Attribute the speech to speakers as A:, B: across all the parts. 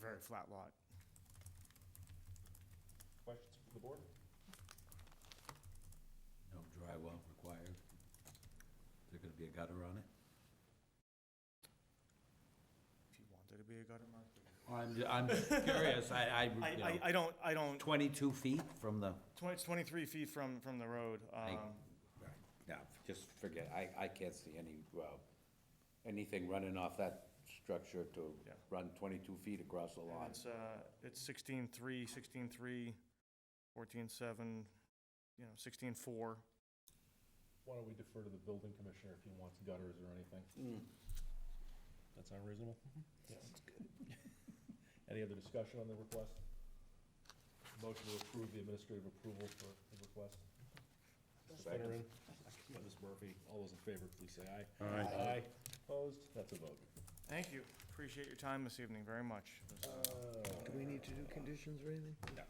A: very flat lot.
B: Questions from the board?
C: No drywall required? Is there gonna be a gutter on it?
A: If you wanted to be a gutter mark.
C: I'm, I'm curious, I, I,
A: I,
C: you
A: I,
C: know,
A: I don't, I don't,
C: twenty-two feet from the,
A: twen- it's 23 feet from, from the road. Um,
C: yeah,
D: Just forget, I, I can't see any, uh, anything running off that structure to
A: Yeah.
D: run 22 feet across the lawn.
A: It's, uh, it's 16.3, 16.3, 14.7, you know, 16.4.
B: Why don't we defer to the building commissioner if he wants gutters or
C: Mm.
B: anything? That sound reasonable? Mm-hmm. Sounds good. Any other discussion on the request? Motion to approve the administrative approval for the request? Mr. Finneran, by Ms. Murphy, all those in favor, please say aye. Aye. Aye, opposed, that's a vote.
A: Thank you. Appreciate your time this evening very much.
B: Uh,
E: Do we need to do conditions or anything?
B: We got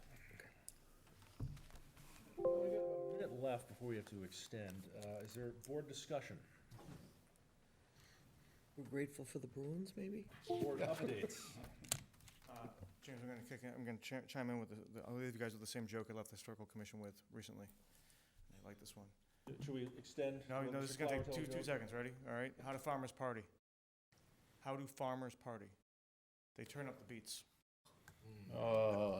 B: about a minute left before we have to extend. Uh, Is there board discussion?
E: We're grateful for the Bruins, maybe?
B: Board updates?
A: Uh, James, I'm going to kick in, I'm going to chime in with, the- the- I'll leave you guys with the same joke I left the historical commission with recently. They like this one.
B: Should we extend?
A: No,
B: Let
A: no,
B: Mr.
A: this is gonna
B: Flower
A: take two,
B: tell
A: two
B: you?
A: seconds, ready? All right, how do farmers party? How do farmers party? They turn up the beats.
E: Oh,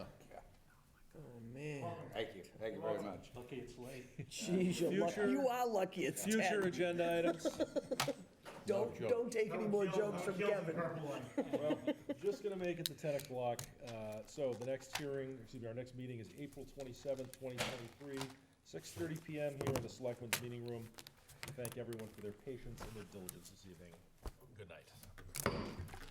E: man.
D: Thank you, thank you very much.
B: Lucky it's late.
E: Jeez, you're
B: Future-
E: lucky. You are lucky it's
B: Future
E: 10.
B: agenda items?
E: Don't, don't take any more jokes from Kevin.
B: Well, just gonna make it to ten o'clock. Uh, so the next hearing, excuse me, our next meeting is April twenty-seventh, twenty twenty-three, six thirty PM here in the Selectmen's Meeting Room. We Thank everyone for their patience and their diligence this evening. Good night.